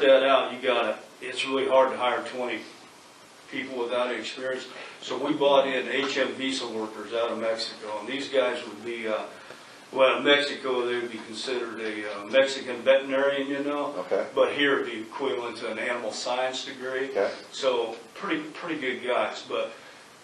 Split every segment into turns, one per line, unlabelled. that out, you gotta, it's really hard to hire twenty people without any experience. So we bought in HM visa workers out of Mexico, and these guys would be, uh, well, in Mexico, they would be considered a uh, Mexican veterinarian, you know?
Okay.
But here it'd be equivalent to an animal science degree.
Okay.
So, pretty, pretty good guys, but,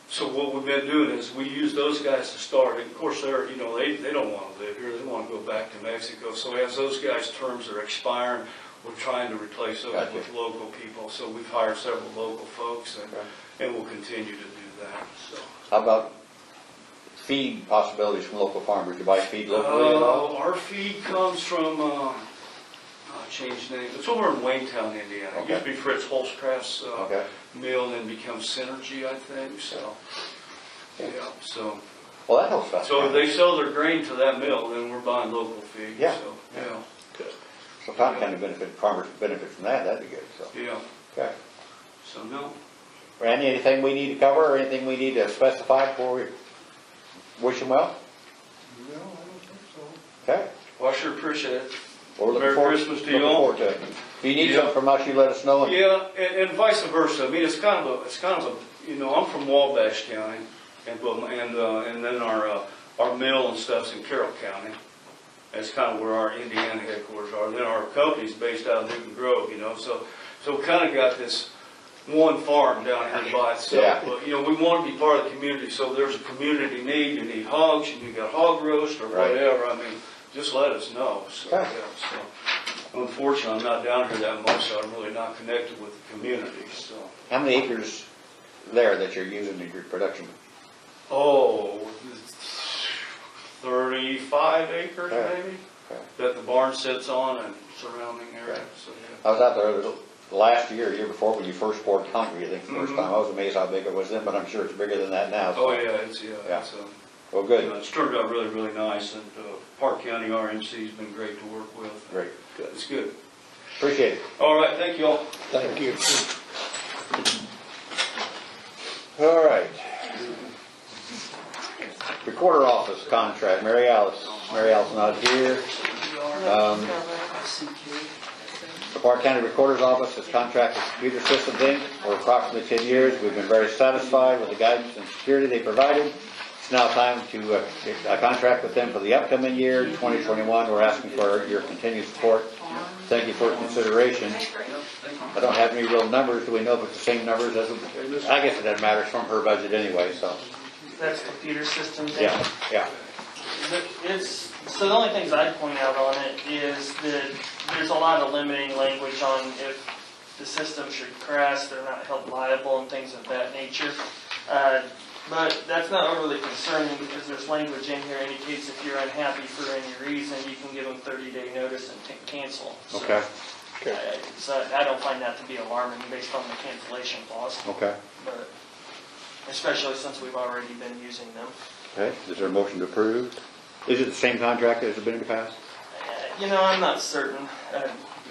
so what we've been doing is, we use those guys to start, and of course, they're, you know, they, they don't wanna live here, they wanna go back to Mexico, so as those guys' terms are expiring, we're trying to replace those
Gotcha.
with local people, so we've hired several local folks, and,
Okay.
and we'll continue to do that, so.
How about feed possibilities from local farmers? You buy feed locally at all?
Uh, our feed comes from, uh, I changed name, it's over in Waynestown, Indiana, it used to be Fritz Holzcraft's, uh,
Okay.
mill, and then become Synergy, I think, so, yeah, so.
Well, that helps us.
So if they sell their grain to that mill, then we're buying local feed,
Yeah.
so, yeah,
So Tom kind of benefit, farmers benefit from that, that'd be good, so.
yeah,
Okay.
so no.
Randy, anything we need to cover or anything we need to specify before we wish them well?
No, I don't think so.
Okay?
Well, I sure appreciate it.
Well, we're looking
Merry
forward-
Christmas to you
Looking
all.
forward to it. If you need
Yeah.
something from us, you let us know. and-
Yeah, and, and vice versa, I mean, it's kind of a, it's kind of a, you know, I'm from Wabash County, and, but, and, uh, and then our, uh, our mill and stuff's in Carroll County. That's kind of where our Indiana headquarters are, then our company's based out of Newton Grove, you know, so, so we kind of got this one farm down here by
Yeah.
itself. But, you know, we want to be part of the community, so if there's a community need, you need hogs, you got hog roast or
Right.
whatever, I mean, just let us know, so,
Okay.
yeah, so. Unfortunately, I'm not down here that much, so I'm really not connected with the community, so.
How many acres there that you're using in your production?
Oh, thirty-five acres
Okay.
maybe,
Okay.
that the barn sits on and surrounding area,
Okay.
so, yeah.
I was out there the last year, year before, when you first poured concrete, I think, the first
Mhm.
time. I was amazed how big it was then, but I'm sure it's bigger than that now. so-
Oh, yeah, it's, yeah,
Yeah.
it's, um,
Well,
you know,
good,
it's turned out really, really nice, and, uh, Park County RMC's been great to work with.
great,
It's good.
appreciate it.
All right, thank you all.
Thank you. All right. Recorder office contract, Mary Alice, Mary Alice not here. Um, The Park County Recorder's Office has contracted with Computer Systems Inc. for approximately 10 years. We've been very satisfied with the guidance and security they provided. It's now time to uh, get a contract with them for the upcoming year, 2021. We're asking for your continued support. Thank you for your consideration. I don't have any real numbers. Do we know if it's the same numbers as, I guess it doesn't matter. It's from her budget anyway, so,
That's computer systems.
yeah, yeah.
The- It's, so the only things I'd point out on it is that there's a lot of limiting language on if the system should crash, they're not held liable and things of that nature. Uh, But that's not overly concerning because there's language in here indicates if you're unhappy for any reason, you can give them thirty day notice and t- cancel. So,
Okay,
I- I- So I don't find that to be alarming based on the cancellation clause,
okay.
but especially since we've already been using them.
Okay, is there a motion to approve? Is it the same contract as has been in the past?
You know, I'm not certain. Uh,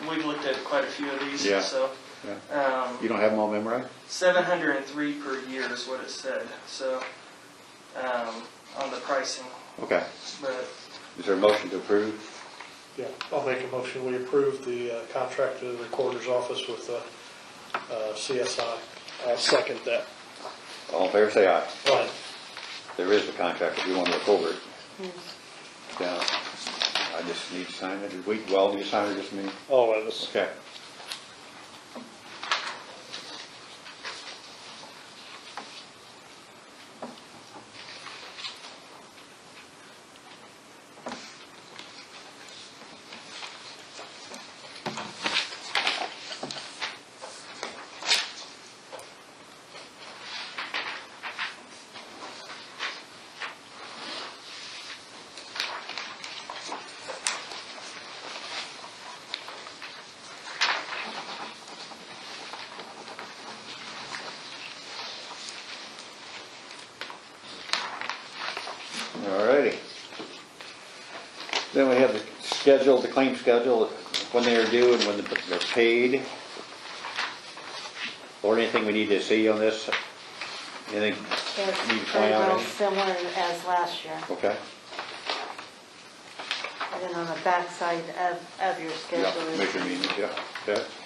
We've looked at quite a few of these,
Yeah.
so.
You
um,
don't have them all memorized?
703 per year is what it said, so, um, on the pricing,
Okay.
but
Is there a motion to approve?
Yeah, I'll make a motion, we approve the uh, contract to the recorder's office with uh, uh, CSI. I'll second that.
All in favor, say aye.
Right.
There is a contract if you want to look over it. Yeah, I just need to sign it. Did we, well, do you sign it just me?
All of us.
Okay. All righty. Then we have the schedule, the claim schedule, when they are due and when they're paid. Or anything we need to see on this? Anything? Need to eh?
It's
plan
very
on
well
it?
similar as last year.
Okay.
And then on the backside of, of your
Yeah,
schedule is
Commission meetings, yeah, okay.